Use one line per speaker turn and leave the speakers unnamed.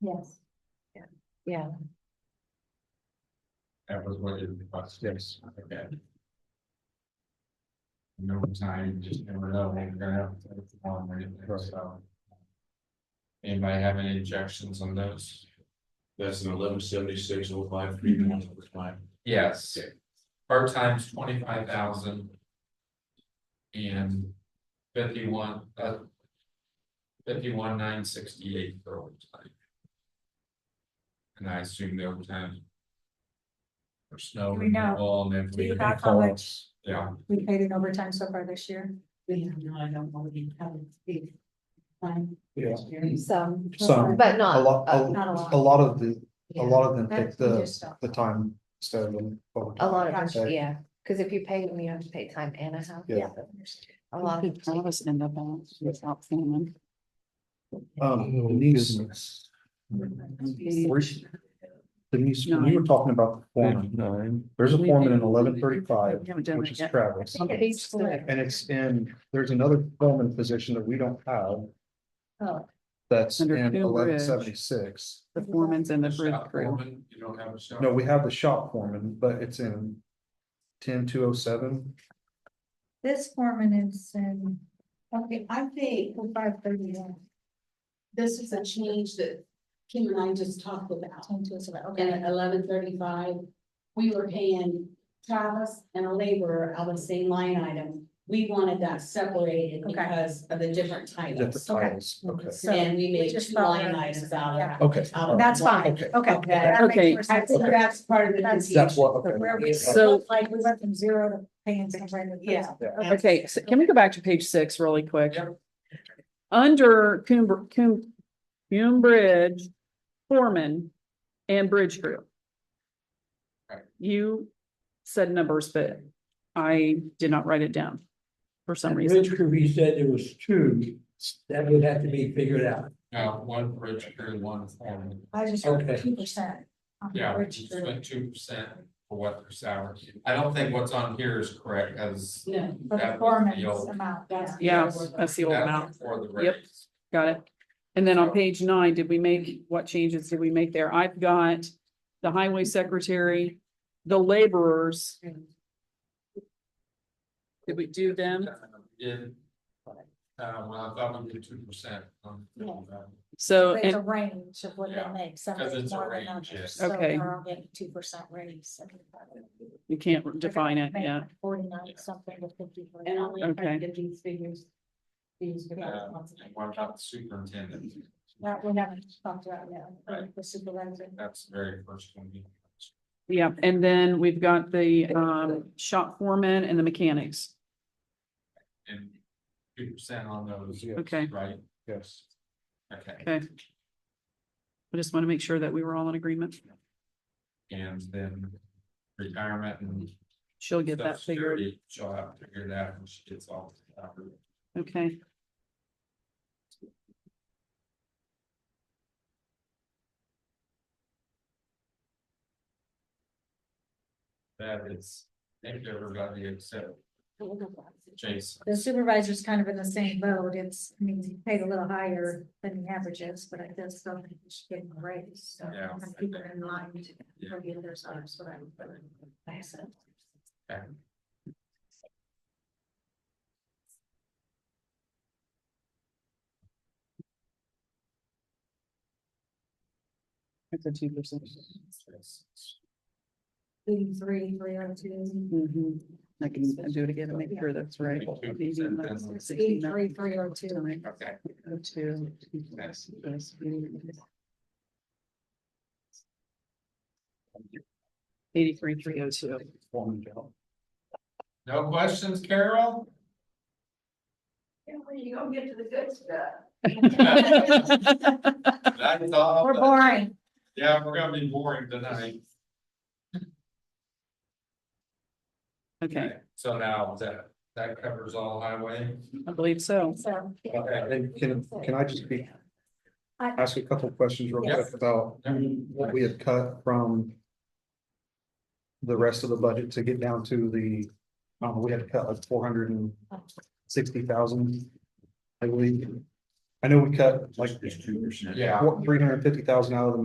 Yes. Yeah.
That was what it was, yes, okay. No time, just never know, when you're gonna have to take the phone or anything, so. Anybody have any objections on those?
That's an eleven seventy-six oh five three one overtime.
Yes. Part time's twenty-five thousand. And fifty-one, uh. Fifty-one nine sixty-eight for overtime. And I assume the overtime. For snow
Do we know?
removal and if
Do you
we.
have how much
Yeah,
we paid in overtime so far this year?
We have no, I don't want to be having big time.
Yeah,
Some,
Some.
but
a
not.
lot,
uh,
Not a
a,
lot.
a lot of the, a
yeah.
lot of them
That's
take the, the time instead of
A lot of,
Yeah.
it, yeah, because if you pay them, you have to pay time and a half.
Yeah.
A lot of,
All of us end up on without payment.
Um, Denise, Where's- Denise, when you were talking about the foreman,
Nine.
there's a foreman in eleven thirty-five,
We haven't done
which
it
is
yet.
Travis.
on page four,
And it's in, there's another foreman position that we don't have
Oh,
that's in
Under Phil
eleven
Bridge.
seventy-six.
The foreman's and the bridge
shop
crew.
foreman, you don't have a shop.
No, we have the shop foreman, but it's in ten two oh seven.
this foreman is in, okay, I paid for five thirty.
This is a change that Kim and I just talked about. And
Okay,
at eleven thirty-five, we were paying Travis and a laborer out of the same line item. We wanted that separated
Okay.
because of the different
Different
titles.
Okay.
titles, okay,
so
And we
we
made
just
two
follow
line
those.
items out of.
Yeah.
okay.
out
all
of
right.
that's fine,
Okay.
okay.
Okay.
that makes
Okay.
more
I
sense.
think that's part of the
That's-
confusion.
That's what, okay.
Where we,
So-
like, we went from zero to paying somebody.
Yeah.
Okay, so can we go back to page six really quick? Under Coomber, Coom, Coom Bridge, foreman and bridge crew.
Right.
You said numbers, but I did not write it down for some reason.
Ridge crew, he said there was two, that would have to be figured out.
Uh, one bridge crew, one foreman.
I just heard
Okay.
two percent.
Yeah, we just spent two percent for what their salary. I don't think what's on here is correct as.
No,
For the
that was
foreman's
the old-
amount, yeah.
that's.
Yeah, that's the old
that was
amount.
For the
Yep.
raise.
Got it. And then on page nine, did we make, what changes did we make there? I've got the highway secretary, the laborers. Did we do them?
In. Uh, well, I thought we did two percent on.
So,
It's a
and,
range of what they
Yeah,
make, some
because
is
it's a
more than
range, yes.
others, so
Okay.
they're all getting two percent raise. I mean, they're
you can't
gonna
define it,
make
yeah.
like Forty-nine something to fifty-four.
And only trying
Okay.
to get these figures. These.
Yeah.
without-
And what about the superintendent?
That we haven't talked about yet,
Right.
the supervisor.
That's the very first one. we-
Yeah, and then we've got the, um, shop foreman and the mechanics.
And two percent on those,
Yeah,
Okay,
right?
Yes.
Okay,
okay. I just want to make sure that we were all in agreement.
and then retirement and.
She'll get
Social
that figured,
Security, She'll have to figure that when she gets all. the salary.
okay?
That is, thank you everybody except Jason.
The supervisor's kind of in the same boat, it's, I mean, he paid a little higher than the averages, but I just don't think he's getting a raise, so.
Yeah.
I think we're in line to,
Yeah.
for the others, so that's what I'm, I said.
That's a two percent.
Eighty-three, three oh two.
Mm-hmm. I can do it again and make sure that's right.
Eighty-three, three oh two.
Okay.
oh, Two. Eighty-three, three oh two.
Foreman job.
No questions, Carol?
When you go get to the good stuff.
That's
Oh,
all.
uh,
We're boring.
Yeah, we're gonna be boring tonight.
Okay,
So now that, that covers all highway.
I believe so.
So
Okay.
And uh, can, can I just be?
I-
Ask you a couple of questions real
Yes.
quick about what we had cut from. The rest of the budget to get down to the, um, we had to cut like four hundred and sixty thousand. I believe. I know we cut like
Just two percent.
Yeah.
three hundred and fifty thousand out of the